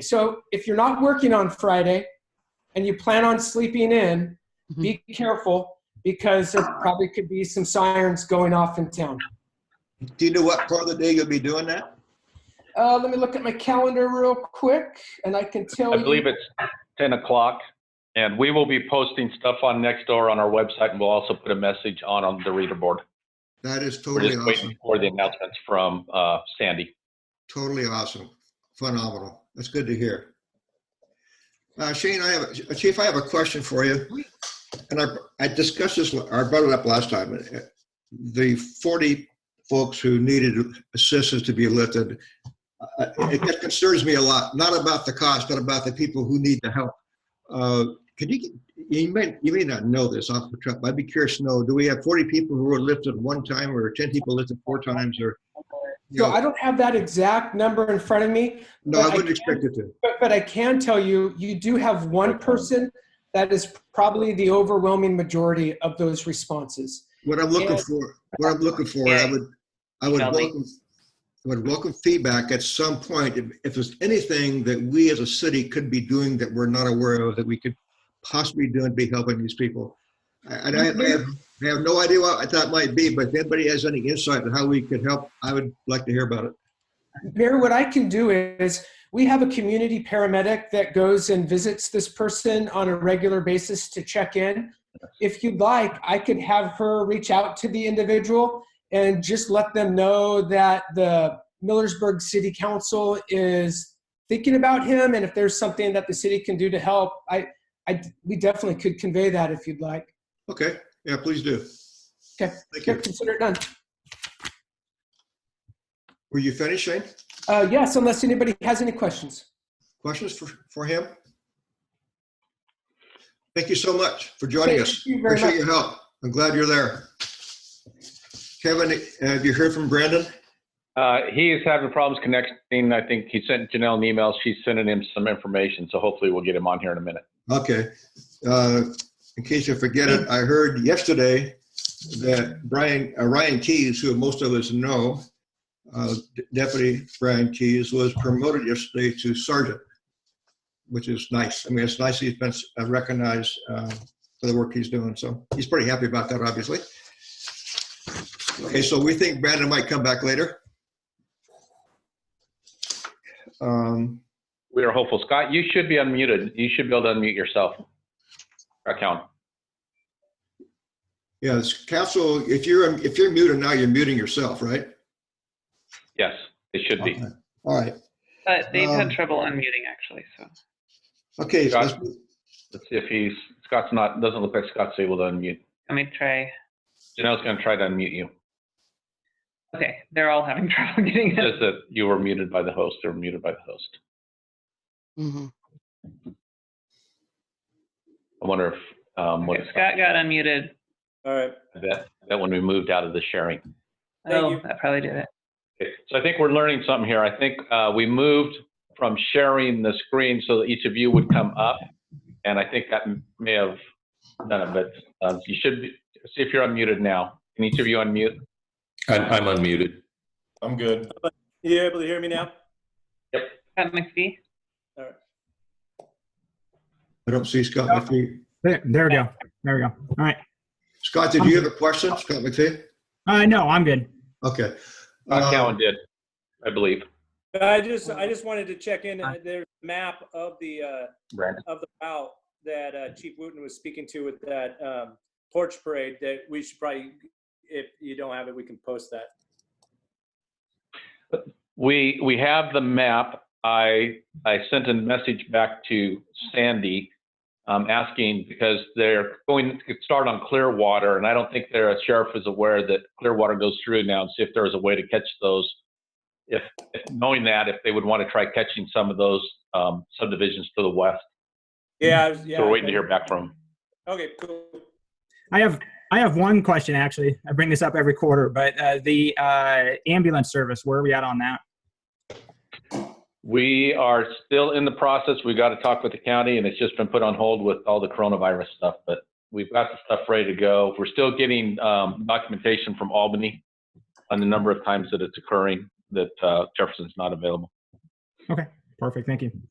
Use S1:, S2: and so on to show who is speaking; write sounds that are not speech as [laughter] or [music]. S1: So if you're not working on Friday and you plan on sleeping in,
S2: Mhm.
S1: be careful because there probably could be some sirens going off in town.
S3: Do you know what part of the day you'll be doing that?
S1: Uh, let me look at my calendar real quick and I can tell
S4: I
S1: you.
S4: believe it's 10 o'clock, and we will be posting stuff on Nextdoor on our website, and we'll also put a message on, on the reader board.
S3: That is
S4: We're
S3: totally
S4: just
S3: awesome.
S4: waiting for the announcements from uh, Sandy.
S3: Totally awesome. Phenomenal. That's good to hear. Uh, Shane, I have, Chief, I have a question for you. And I, I discussed this, or I brought it up last time. Uh, The 40 folks who needed assistance to be lifted, uh, it it concerns me a lot, not about the cost, but about the people who need the help. Uh, Could you, you may, you may not know this off the top, but I'd be curious to know, do we have 40 people who were lifted one time or 10 people lifted four times or? you
S1: So
S3: know,
S1: I don't have that exact number in front of me,
S3: No, I
S1: but I
S3: wouldn't expect it to.
S1: but, but I can tell you, you do have one person that is probably the overwhelming majority of those responses.
S3: What I'm looking
S1: Yeah.
S3: for, what I'm looking for, I would, I would
S5: Kelly.
S3: welcome, I would welcome feedback at some point. If, if there's anything that we as a city could be doing that we're not aware of, that we could possibly do and be helping these people. I- And I, I have, I have no idea what that might be, but if anybody has any insight on how we could help, I would like to hear about it.
S1: Mary, what I can do is we have a community paramedic that goes and visits this person on a regular basis to check in. If you'd like, I could have her reach out to the individual and just let them know that the Millersburg City Council is thinking about him and if there's something that the city can do to help. I, I we definitely could convey that if you'd like.
S3: Okay, yeah, please do.
S1: Okay.
S3: Thank
S1: Here,
S3: you.
S1: consider it done.
S3: Were you finished, Shane?
S1: Uh, yes, unless anybody has any questions.
S3: Questions for, for him? Thank you so much for joining us.
S1: Thank you very much.
S3: Appreciate your help. I'm glad you're there. Kevin, uh, have you heard from Brandon?
S4: Uh, he is having problems connecting. I think he sent Janelle an email. She's sending him some information, so hopefully we'll get him on here in a minute.
S3: Okay. Uh, In case you forget it, I heard yesterday that Brian, uh, Ryan Keys, who most of us know, uh, Deputy Brian Keys, was promoted yesterday to sergeant, which is nice. I mean, it's nice he's been uh, recognized uh, for the work he's doing, so he's pretty happy about that, obviously. Okay, so we think Brandon might come back later. Um,
S4: We are hopeful. Scott, you should be unmuted. You should be able to unmute yourself. Account.
S3: Yes, council, if you're, if you're muted now, you're muting yourself, right?
S4: Yes, it should be.
S3: All right,
S5: But they've
S3: Um,
S5: had trouble unmuting actually, so.
S3: okay, so let's-
S4: Let's see if he's, Scott's not, doesn't look like Scott's able to unmute.
S5: Let me try.
S4: Janelle's going to try to unmute you.
S5: Okay, they're all having [laughs] trouble getting it.
S4: Just that you were muted by the host or muted by the host.
S2: Mhm.
S4: I wonder if, um, what,
S5: Okay, Scott got unmuted.
S6: All right.
S4: that, that when we moved out of the sharing.
S6: Thank
S5: Oh,
S6: you.
S5: that probably did it.
S4: Okay, So I think we're learning something here. I think, uh, we moved from sharing the screen so that each of you would come up. And I think that may have done it, but, uh, you should be- see if you're unmuted now. Can each of you unmute?
S7: I'm, I'm unmuted.
S6: I'm good. You able to hear me now?
S5: Scott McPhee?
S3: I don't see Scott McPhee.
S8: There, there we go. There we go. All right.
S3: Scott, did you have a question, Scott McPhee?
S8: Uh, no, I'm good.
S3: Okay.
S4: Uh,
S3: Uh,
S4: Cowan did, I believe.
S6: I just, I just wanted to check in. Uh, There's a map of the, uh,
S4: Brandon.
S6: of the route that uh, Chief Wooten was speaking to with that um, porch parade that we should probably, if you don't have it, we can post that.
S4: We, we have the map. I, I sent a message back to Sandy um, asking because they're going to start on Clearwater and I don't think their sheriff is aware that Clearwater goes through now and see if there is a way to catch those. If, if knowing that, if they would want to try catching some of those um, subdivisions to the west.
S6: Yeah. I was-
S4: So
S6: yeah,
S4: we're waiting to hear back from. 'em.
S6: Okay, cool.
S8: I have I have one question actually. I bring this up every quarter, but uh, the uh, ambulance service. Where are we at on that?
S4: We are still in the process. We got to talk with the county and it's just been put on hold with all the coronavirus stuff, but we've got the stuff ready to go. We're still getting um, documentation from Albany on the number of times that it's occurring that uh, Jefferson's not available.
S8: Perfect. Thank you.